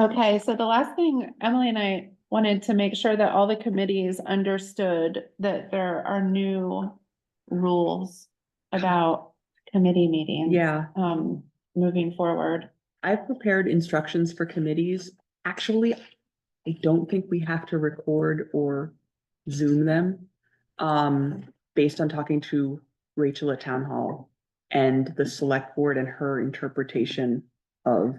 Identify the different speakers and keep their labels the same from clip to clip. Speaker 1: Okay, so the last thing, Emily and I wanted to make sure that all the committees understood that there are new rules about committee meetings.
Speaker 2: Yeah,
Speaker 1: Um, moving forward.
Speaker 2: I've prepared instructions for committees. Actually, I don't think we have to record or zoom them. Um, based on talking to Rachel at Town Hall and the select board and her interpretation of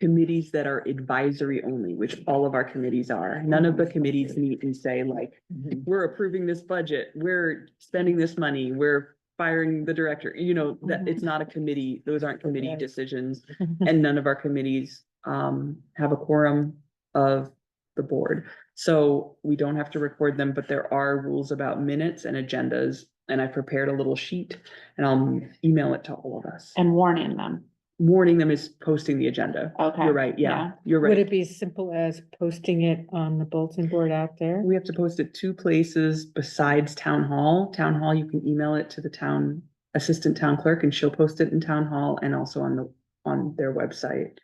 Speaker 2: committees that are advisory only, which all of our committees are. None of the committees meet and say like, we're approving this budget, we're spending this money, we're firing the director, you know, that it's not a committee, those aren't committee
Speaker 3: Right.
Speaker 2: decisions. And none of our committees um have a quorum of the board. So we don't have to record them, but there are rules about minutes and agendas. And I prepared a little sheet and I'll email it to all of us.
Speaker 1: And warning them,
Speaker 2: Warning them is posting the agenda.
Speaker 1: okay?
Speaker 2: You're right, yeah, you're
Speaker 3: Would
Speaker 2: right.
Speaker 3: it be as simple as posting it on the bulletin board out there?
Speaker 2: We have to post it two places besides town hall. Town hall, you can email it to the town assistant town clerk and she'll post it in town hall and also on the, on their website.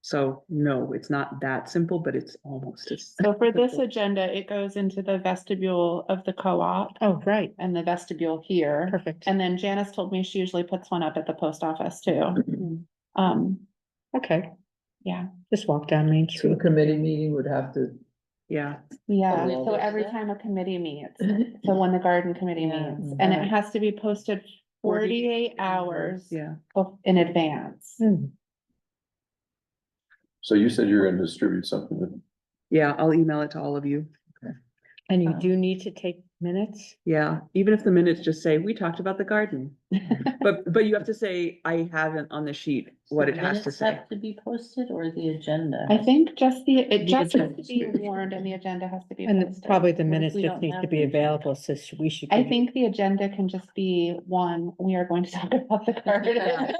Speaker 2: So no, it's not that simple, but it's almost as.
Speaker 1: So for this agenda, it goes into the vestibule of the co-op
Speaker 3: Oh, right,
Speaker 1: and the vestibule here.
Speaker 3: perfect.
Speaker 1: And then Janice told me she usually puts one up at the post office too.
Speaker 3: Mm,
Speaker 1: Um,
Speaker 3: Okay.
Speaker 1: Yeah.
Speaker 3: Just walk down Main
Speaker 4: So a
Speaker 3: Street.
Speaker 4: committee meeting would have to,
Speaker 2: Yeah,
Speaker 1: yeah,
Speaker 4: Oh,
Speaker 1: so
Speaker 4: well,
Speaker 1: every
Speaker 4: yeah.
Speaker 1: time a committee meets, so when the garden committee
Speaker 3: Yeah.
Speaker 1: meets, and it
Speaker 3: Mhm.
Speaker 1: has to be posted forty-eight hours
Speaker 2: yeah.
Speaker 1: bef- in advance.
Speaker 5: Hmm.
Speaker 3: Mm,
Speaker 6: So you said you're gonna distribute something that
Speaker 2: Yeah, I'll email it to all of you.
Speaker 3: And
Speaker 5: Uh,
Speaker 3: you do need to take minutes?
Speaker 2: Yeah, even if the minutes just say, we talked about the garden. But, but you have to say, I haven't on the sheet what it has to say.
Speaker 5: To be posted or the agenda?
Speaker 1: I think just the, it
Speaker 5: The
Speaker 1: just has to
Speaker 5: agenda's
Speaker 1: be
Speaker 5: big.
Speaker 1: warned and the agenda has to be.
Speaker 3: And
Speaker 1: posted.
Speaker 3: probably the
Speaker 5: What if
Speaker 3: minutes
Speaker 5: we
Speaker 3: just
Speaker 5: don't
Speaker 3: need to
Speaker 5: have
Speaker 3: be
Speaker 5: the agenda?
Speaker 3: available, so sh- we should.
Speaker 1: I
Speaker 3: give it-
Speaker 1: think the agenda can just be one, we are going to talk about the garden.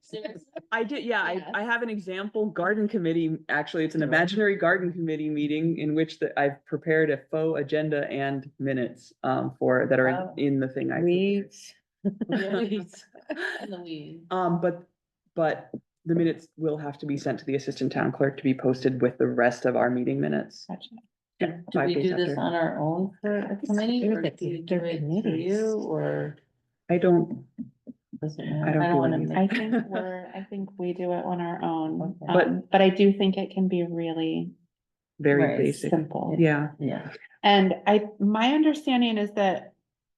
Speaker 5: Seriously?
Speaker 2: I did, yeah, I,
Speaker 5: Yeah.
Speaker 2: I have an example garden committee, actually, it's an
Speaker 4: Yeah.
Speaker 2: imaginary garden committee meeting in which that I've prepared a faux agenda and minutes um for, that are in-
Speaker 5: Oh.
Speaker 2: in the thing I.
Speaker 3: Weeds.
Speaker 5: Louise. And Louise.
Speaker 2: Um, but, but the minutes will have to be sent to the assistant town clerk to be posted with the rest of our meeting minutes.
Speaker 1: Gotcha.
Speaker 2: Yeah,
Speaker 5: Do
Speaker 2: five
Speaker 5: we
Speaker 2: days
Speaker 5: do this
Speaker 2: after.
Speaker 5: on our own for a committee
Speaker 3: Look
Speaker 5: or
Speaker 3: at
Speaker 5: do
Speaker 3: these
Speaker 5: we do
Speaker 3: dark
Speaker 5: it through
Speaker 3: committees.
Speaker 5: you or?
Speaker 2: I don't,
Speaker 5: doesn't
Speaker 2: I
Speaker 5: matter?
Speaker 2: don't
Speaker 5: I
Speaker 2: do
Speaker 5: don't wanna
Speaker 2: anything.
Speaker 5: make-
Speaker 1: I think we're, I think we do it on our own,
Speaker 5: Okay.
Speaker 2: But-
Speaker 1: um, but I do think it can be really
Speaker 2: very
Speaker 5: Right,
Speaker 2: basic,
Speaker 1: simple.
Speaker 2: yeah.
Speaker 5: Yeah.
Speaker 1: And I, my understanding is that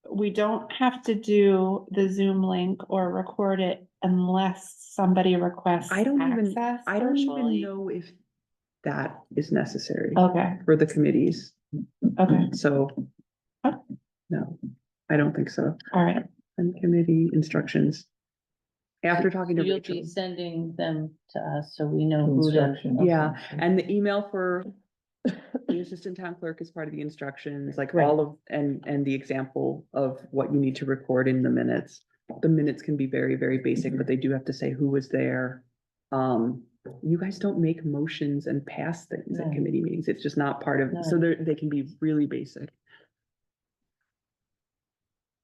Speaker 1: we don't have to do the Zoom link or record it unless somebody requests
Speaker 2: I don't even-
Speaker 1: access
Speaker 2: I don't even
Speaker 1: virtually.
Speaker 2: know if that is necessary
Speaker 5: Oh.
Speaker 1: Okay,
Speaker 2: for the committees,
Speaker 1: okay,
Speaker 2: so.
Speaker 1: Oh.
Speaker 2: No, I don't think so.
Speaker 1: all right.
Speaker 2: And committee instructions. After talking
Speaker 5: So
Speaker 2: to
Speaker 5: You'll
Speaker 2: Rachel,
Speaker 5: be sending them to us so we know who to.
Speaker 4: Instruction.
Speaker 2: yeah, and the email for the assistant town clerk is part of the instructions, like all of, and, and the example of what you need to record in the minutes. The minutes can be very, very basic, but they do have to say who was there. Um, you guys don't make motions and pass things at
Speaker 5: No.
Speaker 2: committee meetings. It's just not part of, so
Speaker 5: No.
Speaker 2: they're, they can be really basic.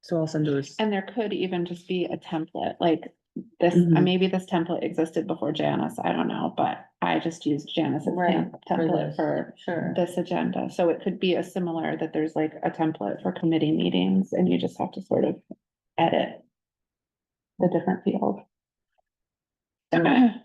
Speaker 2: So I'll send those.
Speaker 1: And there could even just be a template, like this, uh,
Speaker 2: Mhm.
Speaker 1: maybe this template existed before Janice, I don't know, but I just used Janice's
Speaker 5: Right,
Speaker 1: tem-
Speaker 5: for
Speaker 1: template
Speaker 5: this,
Speaker 1: for
Speaker 5: Sure.
Speaker 1: this agenda, so it could be a similar, that there's like a template for committee meetings, and you just have to sort of edit the different field.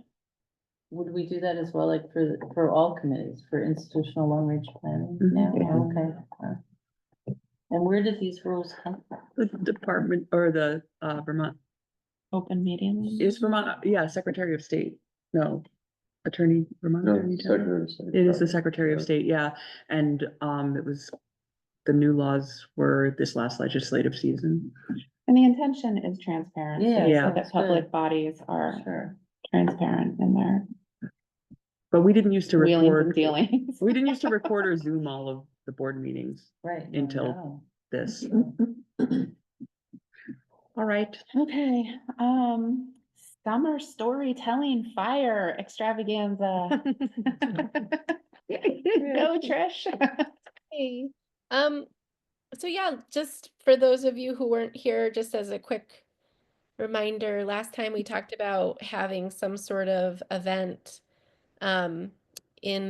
Speaker 5: Would we do that as well, like for, the- for all committees, for institutional long range planning?
Speaker 2: Mhm.
Speaker 5: Yeah,
Speaker 2: Yeah.
Speaker 5: okay. okay. And where did these rules come from?
Speaker 2: The department or the uh Vermont,
Speaker 1: Open meeting.
Speaker 2: is Vermont, uh, yeah, Secretary of State, no. Attorney, Vermont
Speaker 6: no,
Speaker 2: Attorney General.
Speaker 6: Secretary of State.
Speaker 2: It is the
Speaker 6: right?
Speaker 2: Secretary of
Speaker 6: Yeah.
Speaker 2: State, yeah, and um it was. The new laws were this last legislative season.
Speaker 1: And the intention is transparency,
Speaker 5: Yeah,
Speaker 2: Yeah.
Speaker 1: so that
Speaker 5: sounds
Speaker 1: public
Speaker 5: good.
Speaker 1: bodies are
Speaker 5: Sure.
Speaker 1: transparent in their
Speaker 2: But we didn't used to
Speaker 1: wheelings and
Speaker 2: record,
Speaker 1: dealings.
Speaker 2: we didn't used to record or zoom all of the board meetings
Speaker 5: Right. no,
Speaker 2: Until-
Speaker 5: no.
Speaker 2: this.
Speaker 5: Mm-hmm.
Speaker 2: All right,
Speaker 1: Okay, um, summer storytelling fire extravaganza. Go, Trish.
Speaker 7: Hey, um, so yeah, just for those of you who weren't here, just as a quick reminder, last time we talked about having some sort of event, um, in